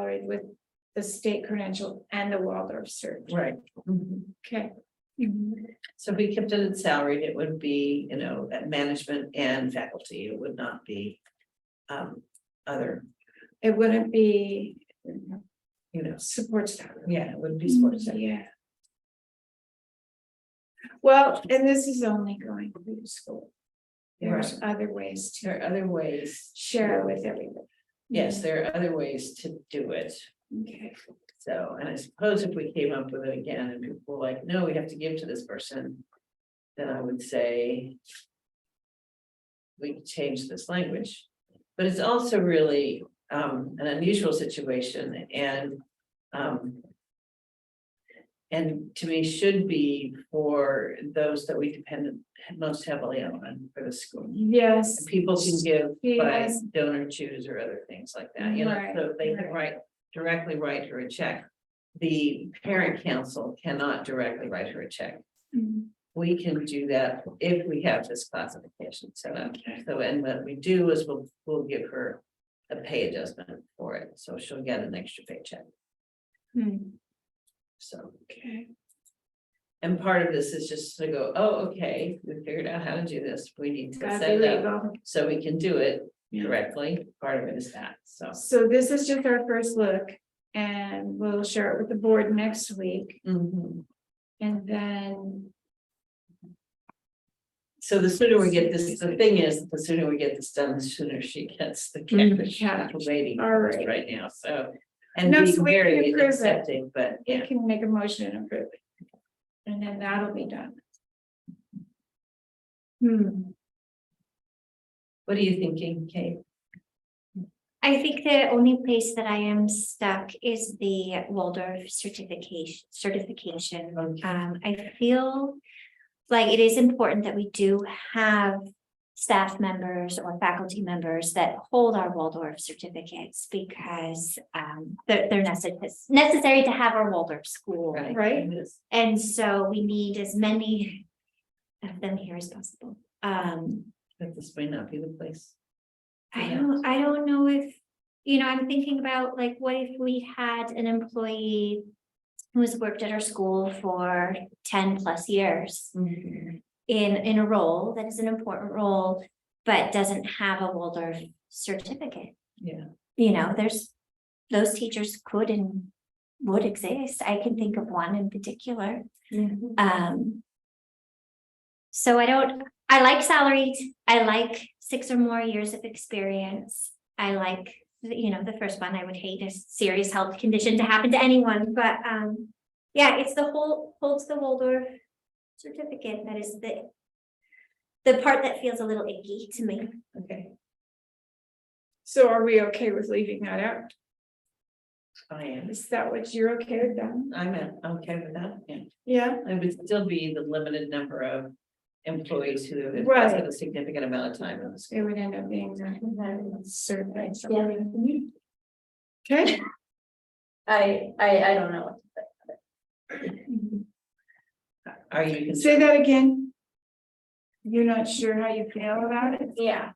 employed with the state credential and the Waldorf cert. Right. Mhm. Okay. So if we kept it at salaried, it would be, you know, at management and faculty, it would not be. Um, other, It wouldn't be you know, Mm-hmm. support staff. yeah, it would be sports. Yeah. Well, and this is only going through school. There's other ways to There are other ways, share with everybody. yes, there are other ways to do it. Okay, So, and I suppose if we came up with it again and people were like, no, we have to give to this person. Then I would say. We could change this language, but it's also really um an unusual situation and um. And to me should be for those that we depend most heavily on for the school. yes, People can give by Yes. donor choose or other things like that, you know, Right, so they can right. write, directly write her a check. The parent council cannot directly write her a check. Mhm. We can do that if we have this classification set up. So, and what we do is we'll, we'll give her a pay adjustment for it, so she'll get an extra paycheck, Hmm, so. okay, And part of this is just to go, oh, okay, we figured out how to do this, we need to gotta set be it up legal. so we can do it Yeah. directly. Part of it is that, so. So this is just our first look and we'll share it with the board next week Mhm. and then. So the sooner we get this, the thing is, the sooner we get this done, the sooner she gets the Mm, catfish yeah. waiting All right. right now, so. And No, so being we can very approve it. accepting, but We yeah, can make a motion and approve it. And then that'll be done. Hmm. what are you thinking, Kate? I think the only place that I am stuck is the Waldorf certification, certification. Um, I feel like it is important that we do have staff members or faculty members that hold our Waldorf certificates because um, they're, they're necessary, necessary to have our Waldorf school. Right. And so we need as many of them here as possible. Um, But this may not be the place. I Yeah. don't, I don't know if, you know, I'm thinking about like, what if we had an employee who's worked at our school for ten plus years Mm-hmm. in, in a role that is an important role, but doesn't have a Waldorf certificate? Yeah. You know, there's, those teachers could and would exist. I can think of one in particular. Mm-hmm. Um. So I don't, I like salaried, I like six or more years of experience. I like, you know, the first one, I would hate a serious health condition to happen to anyone, but um. Yeah, it's the whole, holds the Waldorf certificate that is the. The part that feels a little icky to me. Okay, So are we okay with leaving that out? I am, Is that what you're okay with then? I'm in. okay with that, yeah, Yeah, it would still be the limited number of employees who have invested Right. a significant amount of time in this. it would end up being that certified. something. Okay. I, I, I don't know. Are you? concerned? Say that again. You're not sure how you feel about it? Yeah.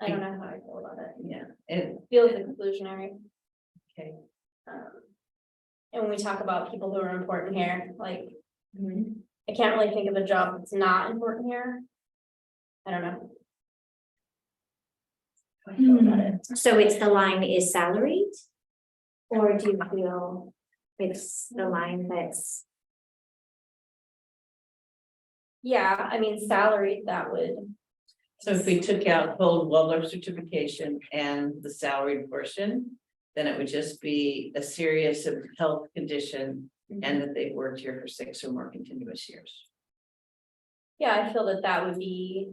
I don't know how I feel about it. Yeah, and, Feels exclusionary. okay. um, And when we talk about people who are important here, like, Mm-hmm. I can't really think of a job that's not important here. I don't know. How I feel about Mm-hmm. it. So it's the line is salaried? Or do you feel it's the line that's? Yeah, I mean, salaried, that would, So if we took out both Waldorf certification and the salaried portion, then it would just be a serious of health condition and that they've worked here for six or more continuous years. yeah, I feel that that would be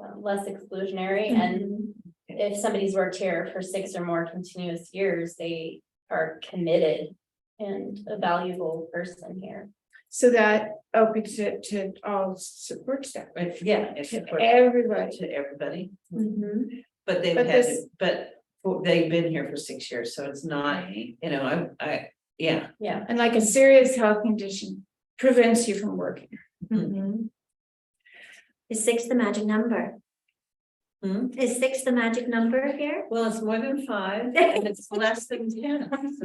uh, less exclusionary Mm-hmm. and if somebody's worked here for six or more continuous years, they are committed and a valuable person here. So that opens it to all support staff. Right, yeah, it's To important everybody. to everybody, Mhm. but they've But had, this- but they've been here for six years, so it's not, you know, I, I, yeah. Yeah, And like a serious health condition prevents you from working. Mm-hmm. Is six the magic number? Hmm? Is six the magic number here? Well, it's more than five and it's less than ten.